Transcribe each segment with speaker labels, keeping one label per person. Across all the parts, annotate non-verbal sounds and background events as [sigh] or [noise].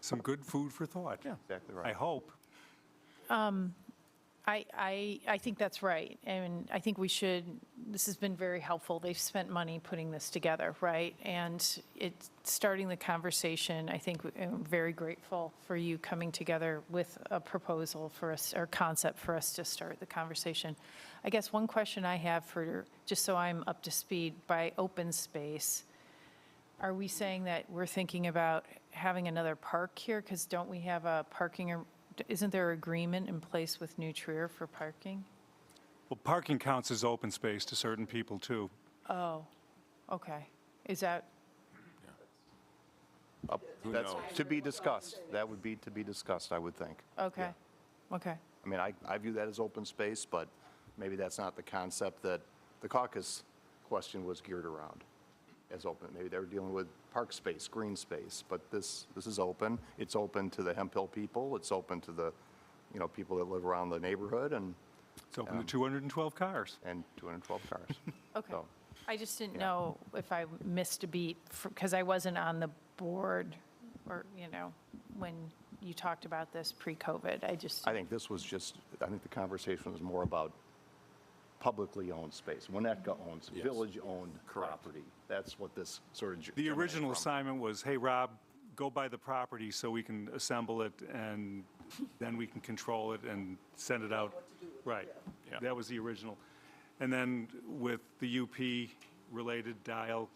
Speaker 1: Some good food for thought. Yeah.
Speaker 2: Exactly
Speaker 1: I
Speaker 2: right.
Speaker 1: hope.
Speaker 3: I, I, I think that's right. And I think we should, this has been very helpful. They've spent money putting this together, right? And it's starting the conversation. I think I'm very grateful for you coming together with a proposal for us, or concept for us to start the conversation. I guess one question I have for, just so I'm up to speed, by open space, are we saying that we're thinking about having another park here? Because don't we have a parking, ar- isn't there agreement in place with New Trier for parking?
Speaker 1: Well, parking counts as open space to certain people, too.
Speaker 3: Oh, okay. Is that,
Speaker 2: Up- That's to be discussed. That would be to be discussed, I would think.
Speaker 3: okay, okay.
Speaker 2: I mean, I, I view that as open space, but maybe that's not the concept that the caucus question was geared around as open. Maybe they were dealing with park space, green space, but this, this is open. It's open to the Hemp Hill people. It's open to the, you know, people that live around the neighborhood and,
Speaker 1: It's open to 212 cars.
Speaker 2: and 212 cars.
Speaker 3: Okay.
Speaker 2: So-
Speaker 3: I just didn't know if I missed a beat, because I wasn't on the board, or, you know, when you talked about this pre-COVID. I just,
Speaker 2: I think this was just, I think the conversation was more about publicly owned space, Winnetka owns, village-owned property. That's what this sort of. ge-
Speaker 1: The
Speaker 2: germinated
Speaker 1: original
Speaker 2: from.
Speaker 1: assignment was, hey, Rob, go buy the property so we can assemble it, and then we can control it and send it out. Right. That was the original. And then with the UP-related dial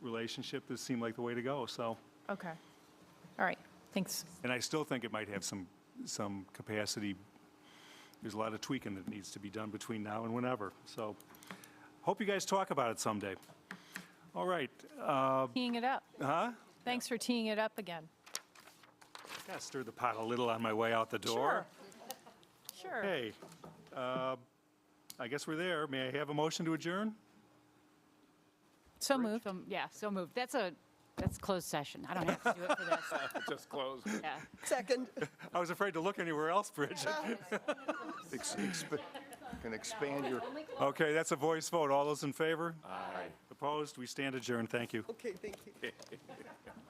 Speaker 1: relationship, this seemed like the way to go, so.
Speaker 3: okay. All right, thanks.
Speaker 1: And I still think it might have some, some capacity. There's a lot of tweaking that needs to be done between now and whenever, so hope you guys talk about it someday. All right, uh,
Speaker 2: Um,
Speaker 3: Teeing it up.
Speaker 1: huh?
Speaker 3: Thanks for teeing it up again.
Speaker 1: Gotta stir the pot a little on my way out the door.
Speaker 3: Sure. Sure.
Speaker 1: Hey, uh, I guess we're there. May I have a motion to adjourn?
Speaker 3: So moved.
Speaker 4: So, yeah, so moved. That's a, that's closed session. I don't have to do it for this.
Speaker 5: Just closed.
Speaker 4: Yeah.
Speaker 1: [laughs]
Speaker 6: Second.
Speaker 1: I was afraid to look anywhere else,
Speaker 3: [laughs]
Speaker 1: Bridget.
Speaker 2: Ex- exp- Can expand your.
Speaker 1: [laughs] Okay, that's a voice vote. All those in favor? Aye. Opposed? We stand adjourned. Thank you.
Speaker 6: Okay, thank you.